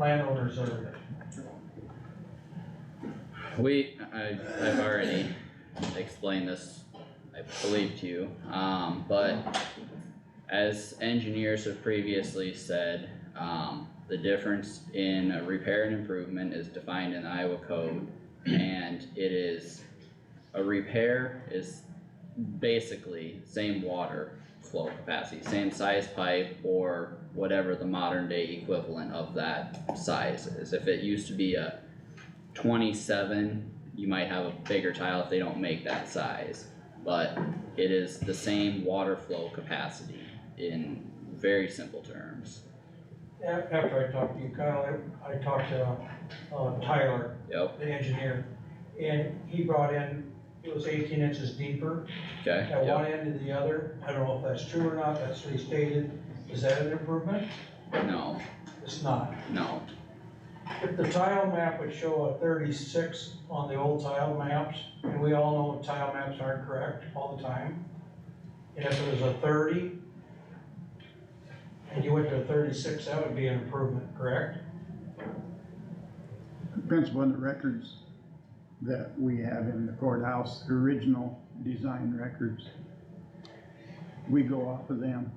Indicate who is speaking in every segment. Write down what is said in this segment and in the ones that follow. Speaker 1: landowners are,
Speaker 2: We, I, I've already explained this, I believe to you, um, but as engineers have previously said, um, the difference in a repair and improvement is defined in Iowa code, and it is, a repair is basically same water flow capacity, same size pipe or whatever the modern day equivalent of that size is. If it used to be a twenty-seven, you might have a bigger tile if they don't make that size. But it is the same water flow capacity in very simple terms.
Speaker 1: a- after I talked to you, Kyle, I- I talked to uh, Tyler,
Speaker 2: Yep,
Speaker 1: the engineer, and he brought in, it was eighteen inches deeper
Speaker 2: okay,
Speaker 1: at
Speaker 2: yep,
Speaker 1: one end to the other. I don't know if that's true or not, that's what he stated. Is that an improvement?
Speaker 2: no,
Speaker 1: It's not.
Speaker 2: no,
Speaker 1: If the tile map would show a thirty-six on the old tile maps, and we all know tile maps aren't correct all the time. And if it was a thirty, and you went to a thirty-six, that would be an improvement, correct?
Speaker 3: Depends upon the records that we have in the courthouse, the original design records. We go off of them.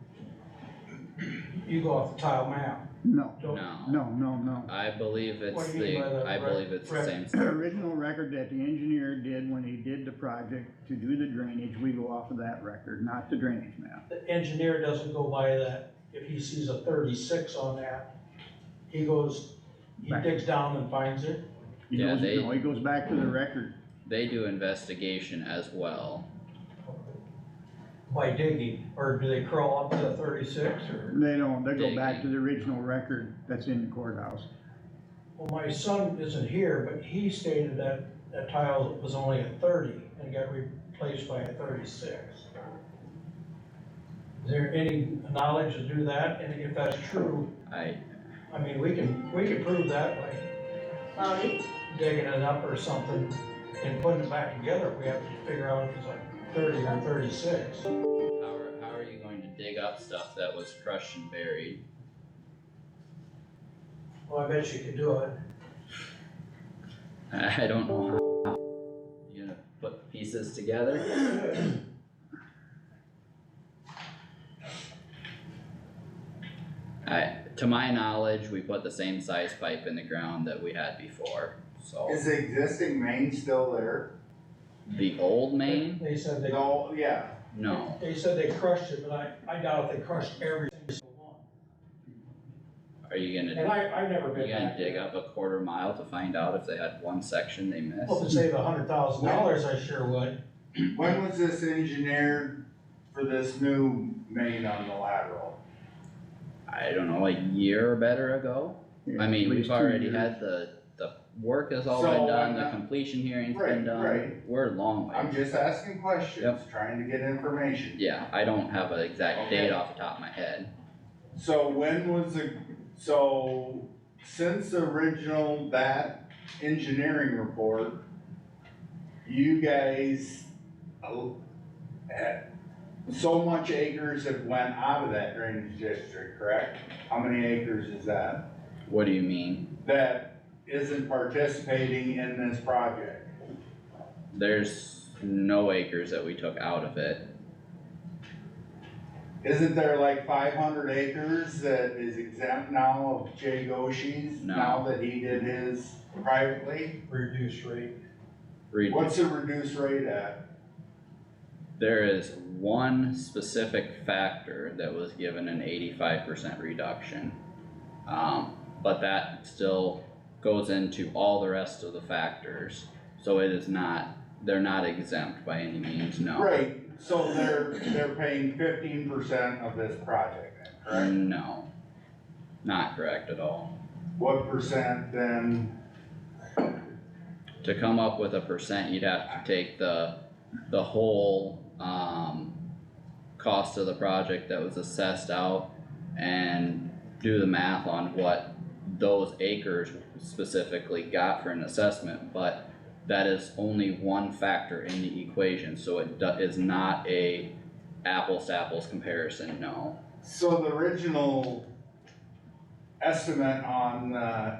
Speaker 1: You go off the tile map.
Speaker 3: No,
Speaker 1: Don't-
Speaker 2: no.
Speaker 3: no, no, no.
Speaker 2: I believe it's
Speaker 1: What do you mean
Speaker 2: the,
Speaker 1: by that,
Speaker 2: I
Speaker 1: Brett?
Speaker 2: believe it's the
Speaker 1: Brett?
Speaker 2: same,
Speaker 3: The original record that the engineer did when he did the project to do the drainage, we go off of that record, not the drainage map.
Speaker 1: The engineer doesn't go by that. If he sees a thirty-six on that, he goes, he
Speaker 3: Back.
Speaker 1: digs down and finds it.
Speaker 3: He
Speaker 2: Yeah,
Speaker 3: goes,
Speaker 2: they-
Speaker 3: no, he goes back to the record.
Speaker 2: they do investigation as well.
Speaker 1: By digging, or do they crawl up to thirty-six, or?
Speaker 3: They don't, they go back
Speaker 2: Digging.
Speaker 3: to the original record that's in the courthouse.
Speaker 1: Well, my son isn't here, but he stated that that tile was only a thirty and got replaced by a thirty-six. Is there any knowledge to do that, and if that's true,
Speaker 2: I,
Speaker 1: I mean, we can, we can prove that by
Speaker 4: Molly?
Speaker 1: digging it up or something and putting it back together, if we have to figure out if it's like thirty or thirty-six.
Speaker 2: how are, how are you going to dig up stuff that was crushed and buried?
Speaker 1: Well, I bet you could do it.
Speaker 2: I don't know how. You gonna put pieces together? I, to my knowledge, we put the same size pipe in the ground that we had before, so.
Speaker 5: Is the existing main still there?
Speaker 2: The old main?
Speaker 1: They said they,
Speaker 5: No, yeah,
Speaker 2: No,
Speaker 1: they said they crushed it, but I, I doubt if they crushed every single one.
Speaker 2: are you
Speaker 1: And
Speaker 2: gonna,
Speaker 1: I, I've never
Speaker 2: you
Speaker 1: been
Speaker 2: gonna
Speaker 1: back
Speaker 2: dig
Speaker 1: there.
Speaker 2: up a quarter mile to find out if they had one section they
Speaker 1: Well, if it
Speaker 2: missed?
Speaker 1: saved a hundred thousand dollars, I sure would.
Speaker 5: when was this engineered for this new main on the lateral?
Speaker 2: I don't know, a year or better ago? I
Speaker 3: Yeah, at
Speaker 2: mean,
Speaker 3: least
Speaker 2: we've
Speaker 3: two
Speaker 2: already
Speaker 3: years.
Speaker 2: had the, the work has all
Speaker 5: So,
Speaker 2: been
Speaker 5: I'm
Speaker 2: done, the
Speaker 5: not-
Speaker 2: completion hearing's been
Speaker 5: Right,
Speaker 2: done,
Speaker 5: right.
Speaker 2: we're a long
Speaker 5: I'm
Speaker 2: way.
Speaker 5: just asking questions,
Speaker 2: Yep.
Speaker 5: trying to get information.
Speaker 2: Yeah, I don't have an exact
Speaker 5: Okay.
Speaker 2: date off the top of my head.
Speaker 5: So when was the, so since the original that engineering report, you guys uh, had- so much acres have went out of that drainage district, correct? How many acres is that?
Speaker 2: What do you mean?
Speaker 5: that isn't participating in this project.
Speaker 2: There's no acres that we took out of it.
Speaker 5: Isn't there like five hundred acres that is exempt now of Jay Goshi's,
Speaker 2: No.
Speaker 5: now that he did his privately?
Speaker 1: Reduced rate.
Speaker 2: Read
Speaker 5: What's the reduced rate at?
Speaker 2: There is one specific factor that was given an eighty-five percent reduction. Um, but that still goes into all the rest of the factors, so it is not, they're not exempt by any means, no.
Speaker 5: Right, so they're, they're paying fifteen percent of this project, then, correct?
Speaker 2: No, not correct at all.
Speaker 5: What percent then,
Speaker 2: To come up with a percent, you'd have to take the, the whole, um, cost of the project that was assessed out and do the math on what those acres specifically got for an assessment, but that is only one factor in the equation, so it do- is not a apples to apples comparison, no.
Speaker 5: so the original estimate on, uh,